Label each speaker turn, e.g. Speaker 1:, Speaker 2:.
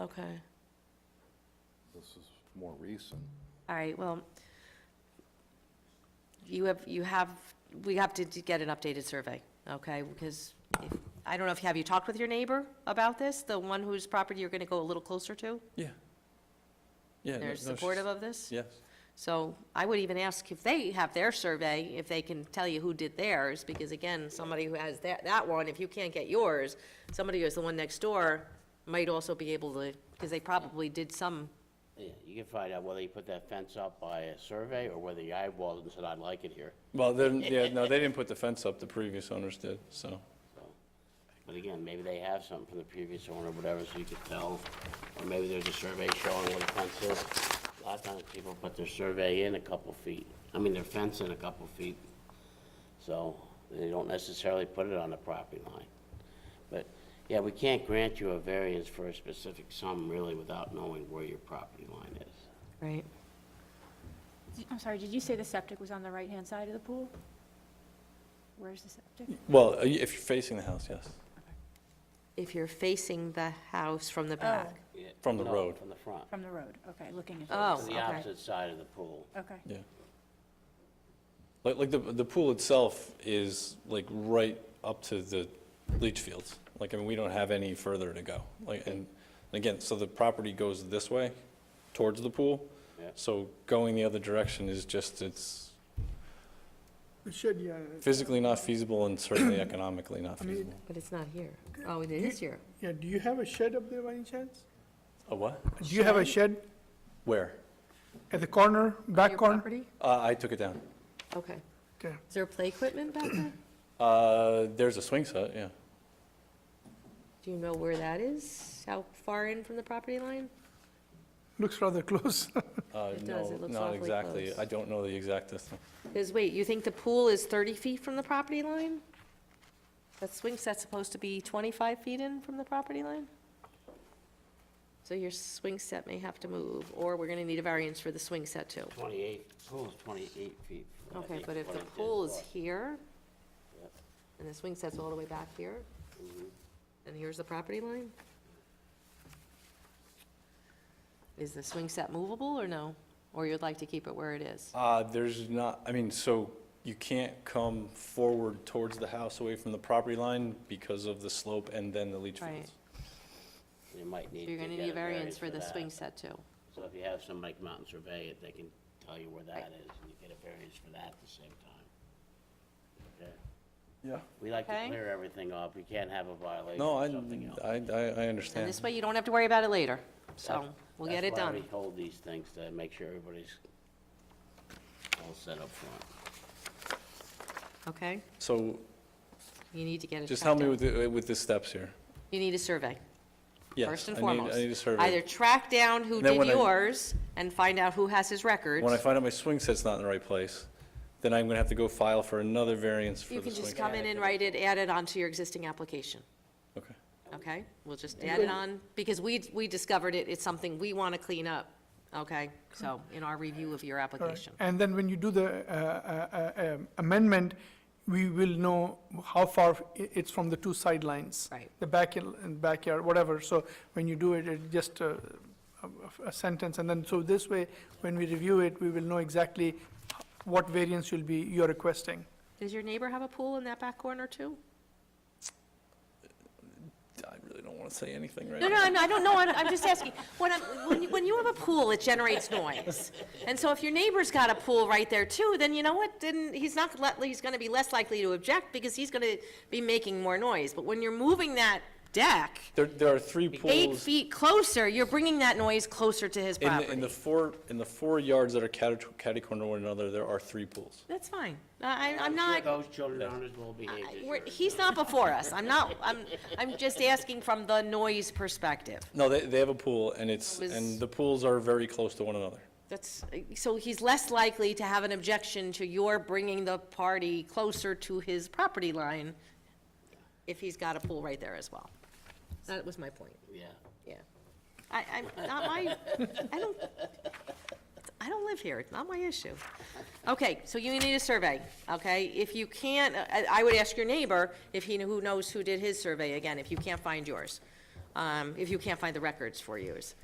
Speaker 1: Okay.
Speaker 2: This is more recent.
Speaker 1: All right, well, you have, you have, we have to d- get an updated survey, okay? Because, if- I don't know if, have you talked with your neighbor about this? The one whose property you're going to go a little closer to?
Speaker 3: Yeah. Yeah. no-
Speaker 1: They're
Speaker 3: no, she's-
Speaker 1: supportive of this?
Speaker 3: Yes.
Speaker 1: So I would even ask if they have their survey, if they can tell you who did theirs, because again, somebody who has that, that one, if you can't get yours, somebody who has the one next door might also be able to, because they probably did some,
Speaker 4: Yeah, you can find out whether you put that fence up by a survey or whether you eyeballed it and said, I like it here.
Speaker 3: Well, then, yeah, no, they didn't put the fence up, the previous owners did, so.
Speaker 4: But again, maybe they have something from the previous owner, or whatever, so you could tell, or maybe there's a survey showing where the fence is. A lot of times people put their survey in a couple feet, I mean, their fence in a couple feet. So they don't necessarily put it on the property line. But, yeah, we can't grant you a variance for a specific sum really without knowing where your property line is.
Speaker 1: right?
Speaker 5: I'm sorry, did you say the septic was on the right-hand side of the pool? Where's the septic?
Speaker 3: Well, uh, if you're facing the house, yes,
Speaker 1: If you're facing the house from the back.
Speaker 4: Oh.
Speaker 3: From the
Speaker 4: No,
Speaker 3: road.
Speaker 4: From the front,
Speaker 5: From the road, okay, looking at.
Speaker 1: Oh.
Speaker 4: to
Speaker 5: this.
Speaker 4: the
Speaker 1: okay.
Speaker 4: opposite side of the pool.
Speaker 5: Okay,
Speaker 3: yeah. Like, like the, the pool itself is like right up to the leach fields. Like, I mean, we don't have any further to go. Like, and again, so the property goes this way towards the pool.
Speaker 4: Yeah.
Speaker 3: So going the other direction is just, it's
Speaker 6: It should, yeah.
Speaker 3: physically not feasible and certainly economically not
Speaker 6: mean-
Speaker 3: feasible.
Speaker 1: But it's not here. Oh, it is here.
Speaker 6: Yeah, do you have a shed up there by any chance?
Speaker 3: A what?
Speaker 6: Do you have a shed
Speaker 3: Where?
Speaker 6: at the corner, back
Speaker 1: Your
Speaker 6: corner?
Speaker 1: property?
Speaker 3: Uh, I took it down.
Speaker 1: Okay.
Speaker 6: Okay.
Speaker 1: Is there play equipment back there?
Speaker 3: Uh, there's a swing set, yeah.
Speaker 1: Do you know where that is? How far in from the property line?
Speaker 6: Looks rather close.
Speaker 3: Uh,
Speaker 1: It does,
Speaker 3: no,
Speaker 1: it looks
Speaker 3: not
Speaker 1: awfully
Speaker 3: exactly.
Speaker 1: close.
Speaker 3: I don't know the exact distance.
Speaker 1: Because, wait, you think the pool is 30 feet from the property line? That swing set's supposed to be 25 feet in from the property line? So your swing set may have to move, or we're going to need a variance for the swing set too.
Speaker 4: 28, pool is 28 feet. from, I
Speaker 1: Okay,
Speaker 4: think,
Speaker 1: but if the
Speaker 4: what it
Speaker 1: pool is
Speaker 4: was.
Speaker 1: here,
Speaker 4: Yep. Mm-hmm.
Speaker 1: and the swing set's all the way back here, and here's the property line? Is the swing set movable or no? Or you'd like to keep it where it is?
Speaker 3: Uh, there's not, I mean, so you can't come forward towards the house away from the property line because of the slope and then the leach
Speaker 1: Right.
Speaker 3: fields.
Speaker 4: You might need
Speaker 1: You're
Speaker 4: to
Speaker 1: gonna
Speaker 4: get
Speaker 1: need a variance for the
Speaker 4: that.
Speaker 1: swing set too.
Speaker 4: So if you have somebody come out and survey it, they can tell you where that is, and you get a variance for that at the same time. Okay.
Speaker 3: Yeah.
Speaker 4: We like to
Speaker 1: Okay.
Speaker 4: clear everything up, you can't have a violation
Speaker 3: No,
Speaker 4: of
Speaker 3: I,
Speaker 4: something else.
Speaker 3: I, I I
Speaker 1: And
Speaker 3: understand.
Speaker 1: this way you don't have to worry about it later, so
Speaker 4: That's-
Speaker 1: we'll get it
Speaker 4: That's why
Speaker 1: done.
Speaker 4: we hold these things, to make sure everybody's all set up front.
Speaker 1: Okay?
Speaker 3: So
Speaker 1: You need to get it
Speaker 3: just
Speaker 1: checked
Speaker 3: help me
Speaker 1: out.
Speaker 3: with, the- with the steps here.
Speaker 1: You need a survey,
Speaker 3: Yes,
Speaker 1: first and
Speaker 3: I need-
Speaker 1: foremost.
Speaker 3: I need a
Speaker 1: Either
Speaker 3: survey.
Speaker 1: track down who
Speaker 3: And then
Speaker 1: did
Speaker 3: when I-
Speaker 1: yours and find out who has his records.
Speaker 3: When I find out my swing set's not in the right place, then I'm gonna have to go file for another variance for
Speaker 1: You
Speaker 3: the
Speaker 1: can
Speaker 3: swing
Speaker 1: just
Speaker 3: set.
Speaker 1: come in and write it, add it onto your existing application,
Speaker 3: Okay.
Speaker 1: okay? We'll just add it on, because we, we discovered it, it's something we want to clean up, okay? So, in our review of your application.
Speaker 6: And then when you do the uh, uh, uh, um, amendment, we will know how far i- it's from the two sidelines.
Speaker 1: Right.
Speaker 6: The back, il- and backyard, whatever, so when you do it, it just uh, a a sentence, and then, so this way, when we review it, we will know exactly what variance you'll be, you're requesting.
Speaker 1: Does your neighbor have a pool in that back corner too?
Speaker 3: I really don't wanna say anything right
Speaker 1: No,
Speaker 3: now.
Speaker 1: no, no, I don't know, I'm I'm just asking, when I'm, when you, when you have a pool, it generates noise. And so if your neighbor's got a pool right there too, then you know what, then he's not, let- he's gonna be less likely to object because he's gonna be making more noise. But when you're moving that deck
Speaker 3: There, there are three pools.
Speaker 1: eight feet closer, you're bringing that noise closer to his
Speaker 3: In the, in
Speaker 1: property.
Speaker 3: the four, in the four yards that are catty, catty corner one another, there are three pools.
Speaker 1: That's fine, I, I'm
Speaker 4: sure
Speaker 1: not,
Speaker 4: Those children aren't as well behaved as
Speaker 1: we're-
Speaker 4: yours.
Speaker 1: he's not before us, I'm not, I'm, I'm just asking from the noise perspective.
Speaker 3: No, they, they have a pool and it's,
Speaker 1: It was-
Speaker 3: and the pools are very close to one another.
Speaker 1: That's, so he's less likely to have an objection to your bringing the party closer to his property line if he's got a pool right there as well. That was my point,
Speaker 4: Yeah.
Speaker 1: yeah. I, I'm, not my, I don't, I don't live here, it's not my issue. Okay, so you need a survey, okay? If you can't, I, I would ask your neighbor if he, who knows who did his survey, again, if you can't find yours. um, if you can't find the records for years.